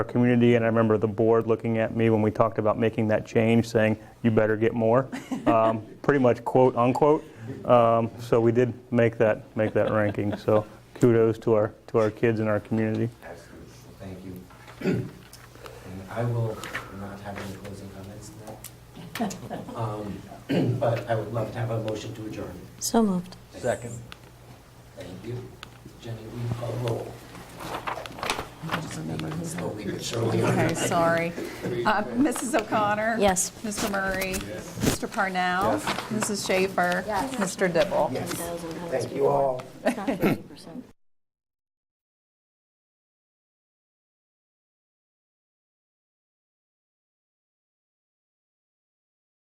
our community, and I remember the board looking at me when we talked about making that change, saying, "You better get more," um, pretty much quote unquote. Um, So we did make that, make that ranking, so kudos to our, to our kids in our community. Absolutely. Thank you. And I will not have any closing comments now. Um, But I would love to have a motion to adjourn. So moved. Second. Thank you. Jenny, we call roll. Slowly but surely. Okay, sorry. Uh, Mrs. O'Connor? Yes. Mr. Murray? Mr. Parnell? Mrs. Schaefer? Mr. Dibble? Yes. Thank you all. It's not 50%.